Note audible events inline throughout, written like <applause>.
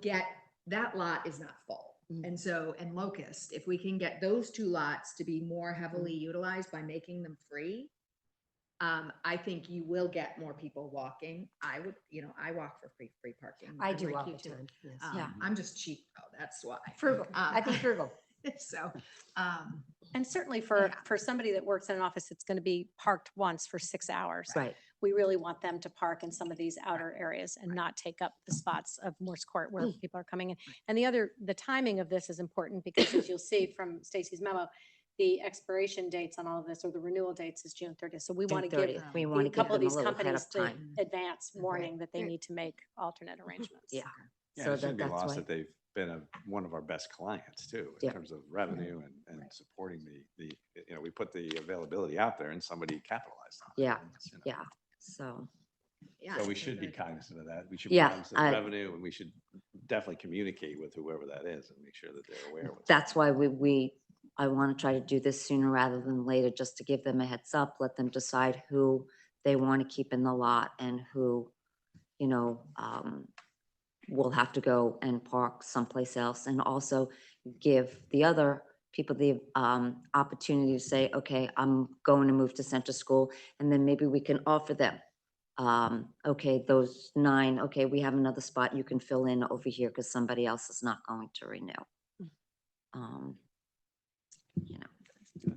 get, that lot is not full. Mm. And so, and Locust, if we can get those two lots to be more heavily Mm-hmm. utilized by making them free, um, I think you will get more people walking. I would, you know, I walk for free, free parking. I I'm do like all you the do. time, yes. Um, Yeah. I'm just cheap, though, that's why. Frugal, <laughs> I Um, think frugal. So, um, <laughs> And certainly for, Yeah. for somebody that works in an office, it's going to be parked once for six hours. Right. We really want them to park in some of these outer areas and not take up the spots of Morse Court where Mm. people are coming in. And the other, the timing of this is important because as you'll see from Stacy's memo, the expiration dates on all of this or the renewal dates is June thirtieth. So we want to give them- We the- want a to give couple of them a these little ahead companies of the time. advance Mhm. warning that they Right. need to make alternate arrangements. Yeah. Yeah, So and it that shouldn't be that's lost why, that they've been a, one of our best clients too, in Yep. terms of revenue and, and Right. supporting the, the, you know, we put the availability out there and somebody capitalized on it. Yeah, and it's, you know. yeah, so, yeah. I So we think should be we're gonna- cognizant of that. We should be Yeah, cognizant I- of revenue and we should definitely communicate with whoever that is and make sure that they're aware. of what's that's why we, we, I want to try to do this sooner rather than later, just to give them a heads up, let them decide who they want to keep in the lot and who, you know, um, will have to go and park someplace else, and also give the other people the, um, opportunity to say, okay, I'm going to move to Center School, and then maybe we can offer them, um, okay, those nine, okay, we have another spot you can fill in over here because somebody else is not going to renew. Um, you know,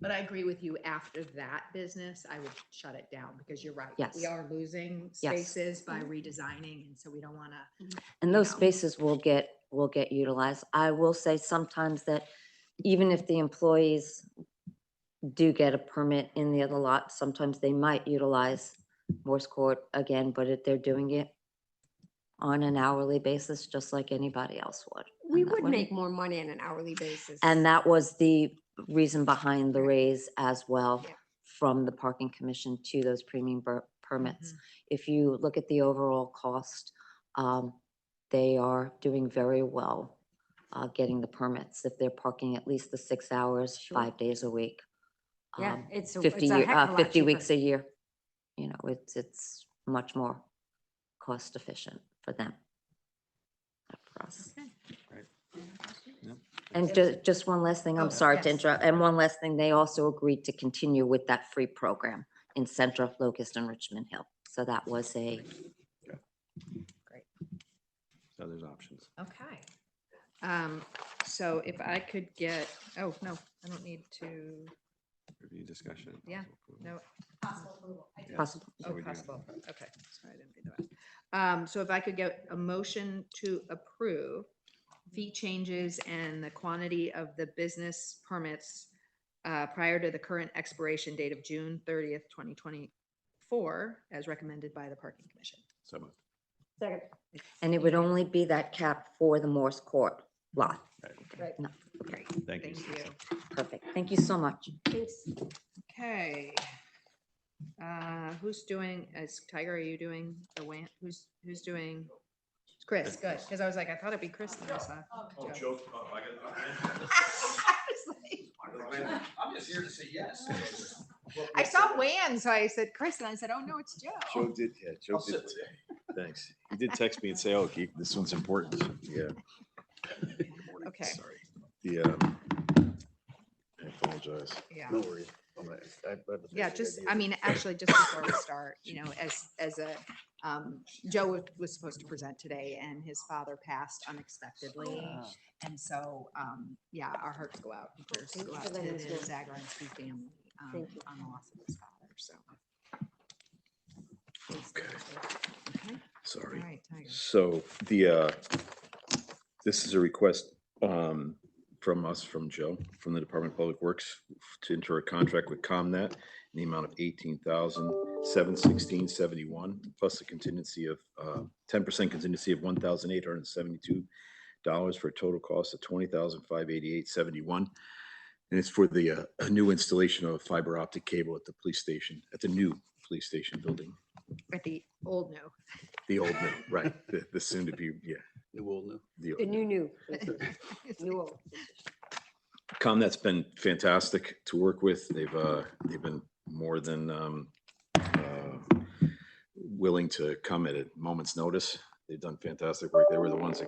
But I agree with you, after that business, I would shut it down, because you're right. Yes. We are losing Yes. Mm-hmm. spaces by redesigning, and so we don't wanna and those know. spaces will get, will get utilized. I will say sometimes that even if the employees do get a permit in the other lot, sometimes they might utilize Morse Court again, but if they're doing it on an hourly basis, just like anybody else would. We and that would wouldn't- make more money on an hourly basis. And that was the reason behind the raise as well Yeah. from the parking commission to those premium per- permits. If you look at the overall cost, um, they are doing very well, uh, getting the permits if they're parking at least the six hours, Sure. five days a week. Yeah, um, it's. a- Fifty it's a year, heck of a uh, lot fifty cheaper. weeks a year. You know, it's, it's much more cost efficient for them. than For us. And ju- just one last thing, Oh, I'm sorry to yes. interrupt, and one last thing, they also agreed to continue with that free program in Centra, Locust and Richmond Hill. So that was a, So there's options. Okay. Um, so if I could get, oh, no, I don't need to, Review discussion. and Yeah, possible approval. no. Yeah, possible. so Oh, we do- possible, okay, sorry, I didn't do that. Um, so if I could get a motion to approve fee changes and the quantity of the business permits uh, prior to the current expiration date of June thirtieth, twenty twenty-four, as recommended by the Parking Commission. So moved. Second, and it would only be that cap for the Morse Court lot. Right. No, Great, Thank you. thank Susan. you. Perfect, thank you so much. thanks. Okay. Uh, who's doing, is Tiger, are you doing the WAN, who's, who's doing? It's Chris, It's good, Chris. because I was like, I thought it'd be Chris. and I saw <laughs> Oh, Joe. joke. Oh, I got- I I'm just here to say yes. saw Wan, so I said Chris, and I said, oh, no, it's Joe. Joe did, yeah, I'll Joe did, sit with you. <laughs> thanks. He did text me and say, oh, Keith, this one's important. Yeah. Okay. Sorry. The, um, I apologize. Yeah, No worries. I'm not- I- I have a yeah, basic just, idea. I mean, actually, just before we start, you know, as, as a, um, Joe was- was supposed to present today and his father passed unexpectedly. Ah. And so, um, yeah, our hearts go out. and prayers Thank go you out for to letting the us know. Zagorowski family um, Thank you. on the loss of his father, so. Okay, All Sorry. right, Tiger. So the, uh, this is a request, um, from us, from Joe, from the Department of Public Works to enter a contract with ComNet in the amount of eighteen thousand, seven sixteen seventy-one, plus a contingency of, uh, ten percent contingency of one thousand eight hundred and seventy-two dollars for a total cost of twenty thousand, five eighty-eight seventy-one. And it's for the, uh, a new installation of fiber optic cable at the police station, at the new police station building. At the old no. The old new, right, the, the soon to be, yeah. The old The new. new, new, It's like, new old. ComNet's been fantastic to work with. They've, uh, they've been more than, um, uh, willing to come at a moment's notice. They've done fantastic work. They were the ones that